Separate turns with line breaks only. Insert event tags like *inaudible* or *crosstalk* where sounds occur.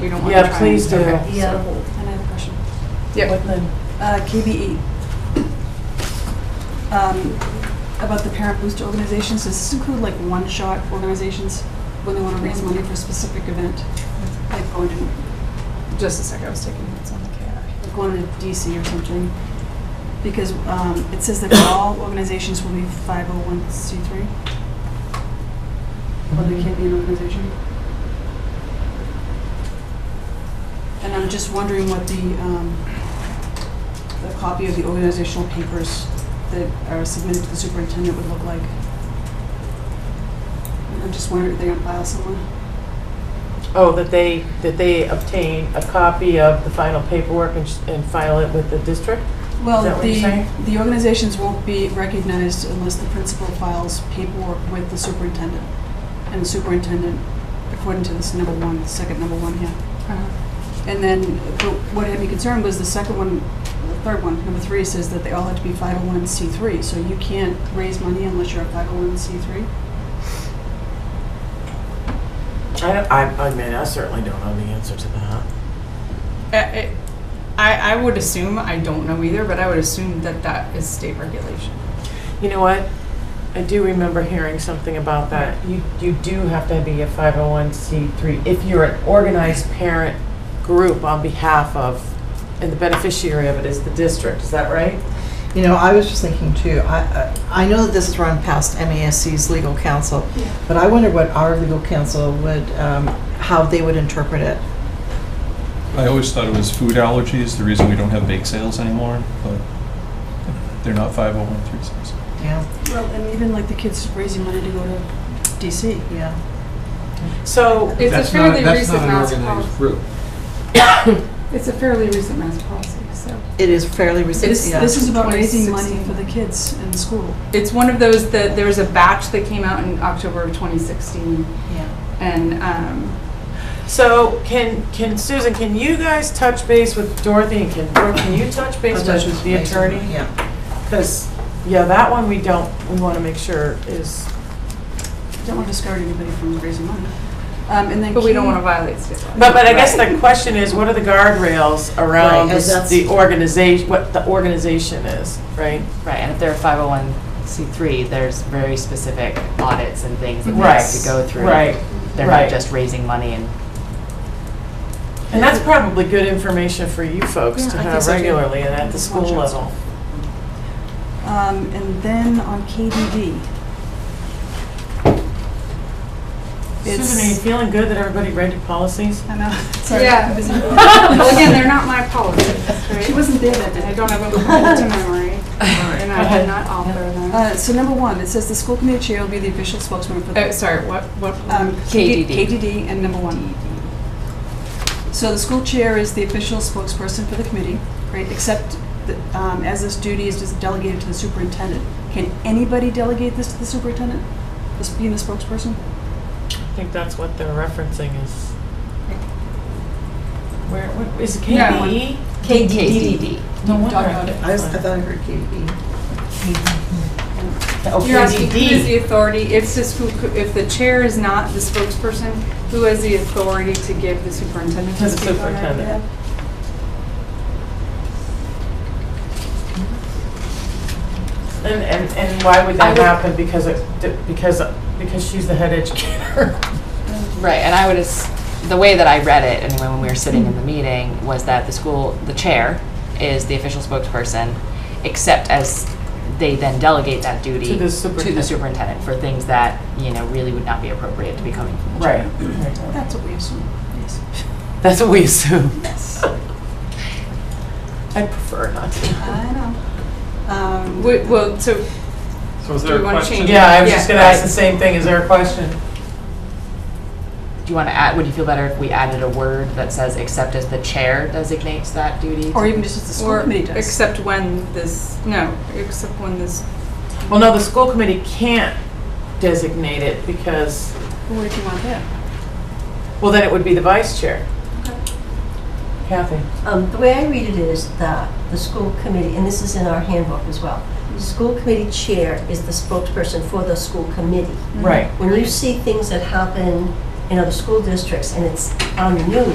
we don't want to try.
Yeah, please do.
Okay.
Yeah.
And I have a question.
Yep.
What the-
Uh, KBE. Um, About the parent booster organizations, does this include like one-shot organizations when they want to raise money for a specific event? Like going to,
Just a second, I was taking notes on the KI.
like going to DC or something? Because um, it says that all organizations will be 501c3. Or they can't be an organization. And I'm just wondering what the, um, the copy of the organizational papers that are submitted to the superintendent would look like. I'm just wondering if they're gonna file someone.
Oh, that they, that they obtain a copy of the final paperwork and, sh- and file it with the district?
Well,
Is that what you're
the,
saying?
the organizations won't be recognized unless the principal files paperwork with the superintendent. And the superintendent, according to this number one, second number one here.
Uh-huh.
And then, but what had me concerned was the second one, the third one, number three, says that they all have to be 501c3. So you can't raise money unless you're a 501c3.
I don't, I, I mean, I certainly don't know the answer to that.
Uh, it- I, I would assume, I don't know either, but I would assume that that is state regulation.
You know what? I do remember hearing something about that. You, you do have to be a 501c3 if you're an organized parent group on behalf of, and the beneficiary of it is the district, is that right?
You know, I was just thinking too, I, I I know that this is run past MASC's legal counsel, but I wonder what our legal counsel would, um, how they would interpret it.
I always thought it was food allergies, the reason we don't have bake sales anymore, but they're not 501(c)(3)s.
Yeah,
Well, and even like the kids raising money to go to DC.
yeah.
So,
It's a
That's not-
fairly
that's
recent
not an
mass
organized
policy.
group.
*coughs* It's a fairly recent mass policy, so.
It is fairly
This,
recent, yeah.
this is about raising money
2016.
for the kids in school.
It's one of those that, there was a batch that came out in October of 2016,
Yeah.
and, um,
so can, can, Susan, can you guys touch base with Dorothy and can, Dor- can you touch base with the attorney?
Yeah.
Because, yeah, that one we don't, we want to make sure is,
Don't want to discourage anybody from raising money. Um, and then
but we don't
key-
want to violate state law.
but, but I guess the question is, what are the guardrails around
Right, and
this-
that's-
the organization, what the organization is, right?
Right, and if they're a 501c3, there's very specific audits and things that they
Right.
have to go through.
Right,
They're
right.
not just raising money and
And that's probably good information for you folks to
Yeah, I think
have
so, too.
regularly and at the school
Watch
level.
Um, and then on KDD. It's-
Susan, are you feeling good that everybody read your policies?
I know, *laughs* sorry.
*laughs* Yeah.
*laughs*
Well, again, they're not my policies,
She
right?
wasn't there that
And I
day.
don't have a *laughs* to memory, and I did not author them.
Uh, so number one, it says the school committee chair will be the official spokesman for the.
Oh, sorry, what, what?
Um,
KDD.
KDD and number one. So the school chair is the official spokesperson for the committee, right, except that, um, as this duty is just delegated to the superintendent. Can anybody delegate this to the superintendent, this being the spokesperson?
I think that's what they're referencing is. Where, what, is it E?
Yeah, when-
KBE?
KDD.
No wonder.
Talk about it.
I was, I thought I heard KDE.
Oh,
You're asking who is the
KDD.
authority, it's just who, co- if the chair is not the spokesperson, who has the authority to give the superintendent
To
to
the
speak on that?
superintendent. And, and, and why would
I
that
would-
happen? Because it, because, because she's the head educator.
Right, and I would, as- the way that I read it, anyway, when we were sitting
Hmm.
in the meeting, was that the school, the chair is the official spokesperson, except as they then delegate that duty
To the
to the
superintendent.
superintendent for things that, you know, really would not be appropriate to be coming from the
Right.
chair.
That's what we assume, yes.
That's what we assume.
Yes.
I prefer not to.
I know. Um,
Wait, Well, so
So is
Do
there
we
a
wanna
question?
change
Yeah, I was
Yeah,
just gonna
right.
ask the same thing. Is there a question?
Do you want to add, would you feel better if we added a word that says, except as the chair designates that duty?
Or even just as the school
Or,
committee does.
except when this, no, except when this,
Well, no, the school committee can't designate it because,
Well, What if you want that?
well, then it would be the vice chair. Kathy?
Um, The way I read it is that the school committee, and this is in our handbook as well, the school committee chair is the spokesperson for the school committee.
Right.
When you see things that happen in other school districts and it's on the news,